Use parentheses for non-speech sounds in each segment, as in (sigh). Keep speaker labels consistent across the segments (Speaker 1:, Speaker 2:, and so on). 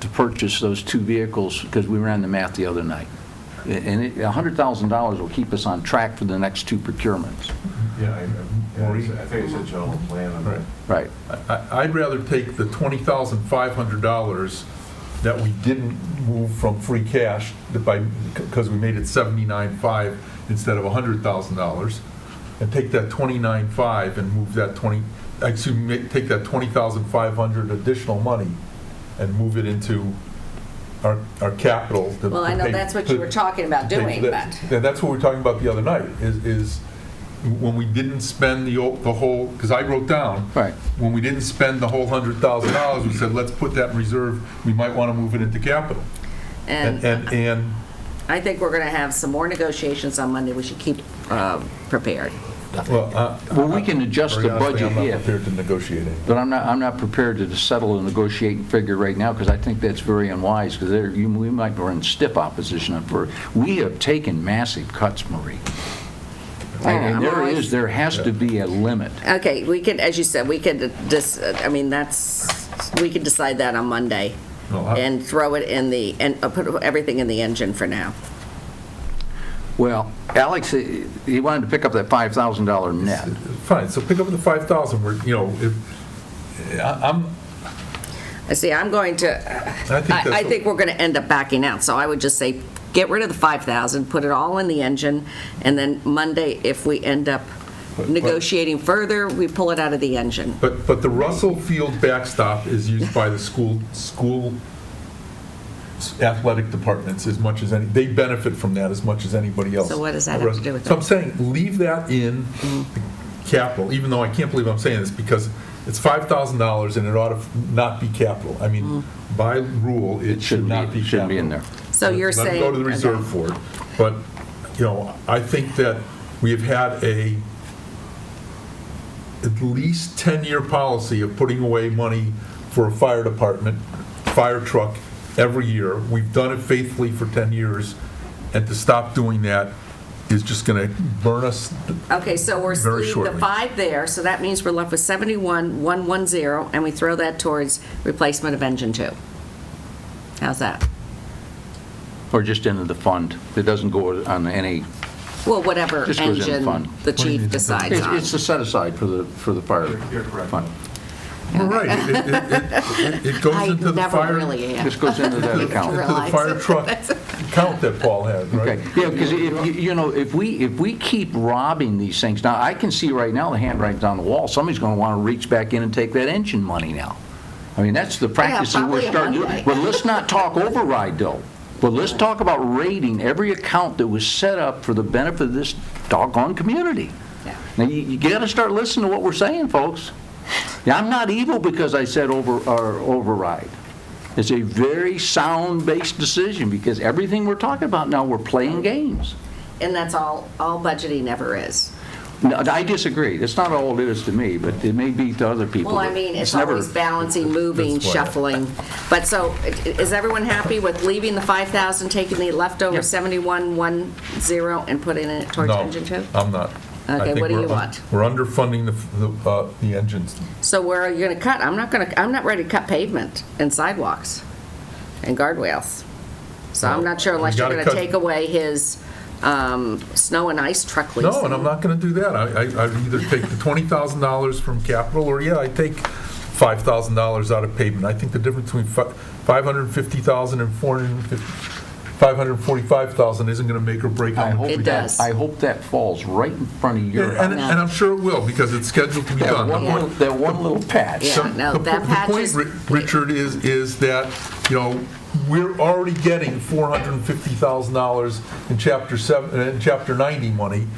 Speaker 1: to purchase those two vehicles because we ran the math the other night. And it- $100,000 will keep us on track for the next two procurements.
Speaker 2: Yeah, I- I, yeah, it's- I think it's a general plan on that.
Speaker 1: Right.
Speaker 3: I- I'd rather take the $20,500 that we didn't move from free cash that by, because we made it 79.5 instead of $100,000, and take that 29.5 and move that 20, excuse me, take that 20,500 additional money and move it into our, our capital. to-
Speaker 4: Well, I know
Speaker 3: to pay-
Speaker 4: that's what you were talking about
Speaker 3: to pay for
Speaker 4: doing,
Speaker 3: that.
Speaker 4: but-
Speaker 3: Yeah, that's what we were talking about the other night, is, is when we didn't spend the, o- the whole, because I wrote down,
Speaker 1: Right.
Speaker 3: when we didn't spend the whole hundred thousand dollars, we said, let's put that in reserve, we might want to move it into capital. And,
Speaker 4: And
Speaker 3: and, and
Speaker 4: I think we're going to have some more negotiations on Monday. We should keep uh, prepared.
Speaker 3: well, uh,
Speaker 1: Well, we can adjust
Speaker 3: very
Speaker 1: the
Speaker 3: honestly,
Speaker 1: budget
Speaker 3: I'm not
Speaker 1: here,
Speaker 3: prepared to negotiate it.
Speaker 1: but I'm not, I'm not prepared to settle a negotiating figure right now because I think that's very unwise because there, you, we might be in stiff opposition on for, we have taken massive cuts, Marie. And and there is, there has to be a limit.
Speaker 4: Okay, we could, as you said, we could just, I mean, that's, we could decide that on Monday
Speaker 3: No, I-
Speaker 4: and throw it in the, and uh, put everything in the engine for now.
Speaker 1: Well, Alex, eh, he wanted to pick up that $5,000 net.
Speaker 3: Fine, so pick up the five thousand, we're, you know, if, I- I'm,
Speaker 4: I see, I'm going to,
Speaker 3: I think
Speaker 4: I
Speaker 3: that's.
Speaker 4: I think we're going to end up backing out, so I would just say, get rid of the 5,000, put it all in the engine, and then Monday, if we end up
Speaker 3: But- but-
Speaker 4: negotiating further, we pull it out of the engine.
Speaker 3: But, but the Russell Field backstop is
Speaker 4: (laughs)
Speaker 3: used by the school, school athletic departments as much as any, they benefit from that as much as anybody else.
Speaker 4: So what does that have to do with Mm-hmm.
Speaker 3: So I'm saying, leave that in the capital, even though I can't believe I'm saying this, because it's $5,000 and it ought to not be capital. I mean,
Speaker 4: Mm-hmm.
Speaker 3: by rule, it should not be capital.
Speaker 1: Shouldn't be in there.
Speaker 4: So you're
Speaker 3: Let it
Speaker 4: saying.
Speaker 3: go to the reserve for it. But, you know, I think that we have had a at least 10-year policy of putting away money for a fire department, fire truck, every year. We've done it faithfully for 10 years, and to stop doing that is just going to burn us.
Speaker 4: Okay, so we're
Speaker 3: Very
Speaker 4: leaving the
Speaker 3: shortly.
Speaker 4: five there, so that means we're left with 71, 110, and we throw that towards replacement of engine two. How's that?
Speaker 1: Or just into the fund. It doesn't go on any,
Speaker 4: Well, whatever
Speaker 1: Just goes in the
Speaker 4: engine
Speaker 1: fund.
Speaker 4: the
Speaker 3: do you mean?
Speaker 4: chief decides
Speaker 1: it's
Speaker 4: on.
Speaker 1: it's a set aside for the, for the fire.
Speaker 2: You're correct.
Speaker 1: fund.
Speaker 3: All right, it- it- it- it it goes
Speaker 4: I
Speaker 3: into the
Speaker 4: never
Speaker 3: fire.
Speaker 4: really am.
Speaker 1: This goes into that account.
Speaker 3: Into the fire
Speaker 4: Realize.
Speaker 3: truck account that Paul had, right?
Speaker 1: Okay, yeah, because if, you- you know, if we, if we keep robbing these things, now, I can see right now the handwriting's on the wall, somebody's going to want to reach back in and take that engine money now. I mean, that's the practice that we're
Speaker 4: probably
Speaker 1: starting to
Speaker 4: Monday.
Speaker 1: do. But let's not talk override, though. But let's talk about raiding every account that was set up for the benefit of this doggone community.
Speaker 4: Yeah.
Speaker 1: Now, you, you got to start listening to what we're saying, folks. Now, I'm not evil because I said over, or override. It's a very sound-based decision, because everything we're talking about now, we're playing games.
Speaker 4: And that's all, all budgeting ever is.
Speaker 1: No, I disagree. That's not all it is to me, but it may be to other people.
Speaker 4: Well, I
Speaker 1: but
Speaker 4: mean, it's
Speaker 1: never-
Speaker 4: always balancing, moving,
Speaker 3: That's why-
Speaker 4: shuffling. But so, i- is everyone happy with leaving the 5,000, taking the leftover 7110 and putting it towards
Speaker 3: No,
Speaker 4: engine two?
Speaker 3: I'm not. I
Speaker 4: Okay,
Speaker 3: think
Speaker 4: what do
Speaker 3: we're
Speaker 4: you
Speaker 3: un-
Speaker 4: want?
Speaker 3: We're underfunding the, f- the, uh, the engines.
Speaker 4: So where are you going to cut? I'm not going to, I'm not ready to cut pavement and sidewalks and guardrails. So I'm not sure
Speaker 3: Well, we
Speaker 4: unless you're
Speaker 3: gotta
Speaker 4: going to
Speaker 3: cut-
Speaker 4: take away his um, snow and ice truck lease.
Speaker 3: No, and I'm not gonna do that. I, I, I'd either take the twenty thousand dollars from capital, or yeah, I take five thousand dollars out of pavement. I think the difference between fi- five hundred and fifty thousand and four hundred and fifty, five hundred and forty-five thousand isn't gonna make or break
Speaker 1: I
Speaker 3: on
Speaker 1: hope
Speaker 3: the.
Speaker 4: It
Speaker 1: that-
Speaker 4: does.
Speaker 1: I hope that falls right in front of your
Speaker 3: And,
Speaker 1: house.
Speaker 3: and I'm sure it will, because it's scheduled to be
Speaker 1: That
Speaker 3: done. The
Speaker 1: one
Speaker 3: point-
Speaker 1: little, that one little patch.
Speaker 4: Yeah.
Speaker 3: So
Speaker 4: no,
Speaker 3: the-
Speaker 4: that patch is-
Speaker 3: The point, Ri- Richard, is, is that, you know, we're already getting $450,000 in Chapter 7, uh, in Chapter 90 money,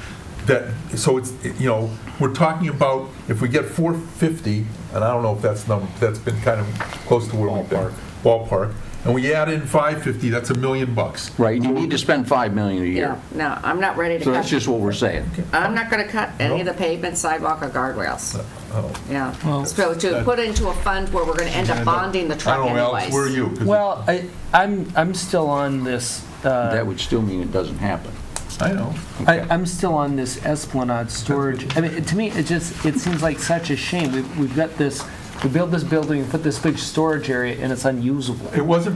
Speaker 3: that, so it's, you know, we're talking about, if we get 450, and I don't know if that's number, that's been kind of close to where we've been. Ballpark. And we add in 550, that's a million bucks.
Speaker 1: Right, you need to spend 5 million a
Speaker 4: Yeah,
Speaker 1: year.
Speaker 4: No, I'm not ready to
Speaker 1: So that's
Speaker 4: cut,
Speaker 1: just what we're saying.
Speaker 4: I'm not going to cut any of the
Speaker 3: Nope.
Speaker 4: pavement, sidewalk, or guardrails.
Speaker 3: Oh.
Speaker 4: Yeah, so to
Speaker 3: that-
Speaker 4: put into a fund where we're going to end up bonding the truck
Speaker 3: I don't
Speaker 4: anyways.
Speaker 3: know, Alex, where are you? 'Cause
Speaker 5: Well, I, I'm, I'm still on this,
Speaker 1: That
Speaker 5: uh,
Speaker 1: would still mean it doesn't happen.
Speaker 3: I know.
Speaker 5: I, I'm still on this Esplanade storage. I mean, to me, it just, it seems like such a shame. We've, we've got this, we built this building, put this big storage area, and it's unusable.
Speaker 3: It wasn't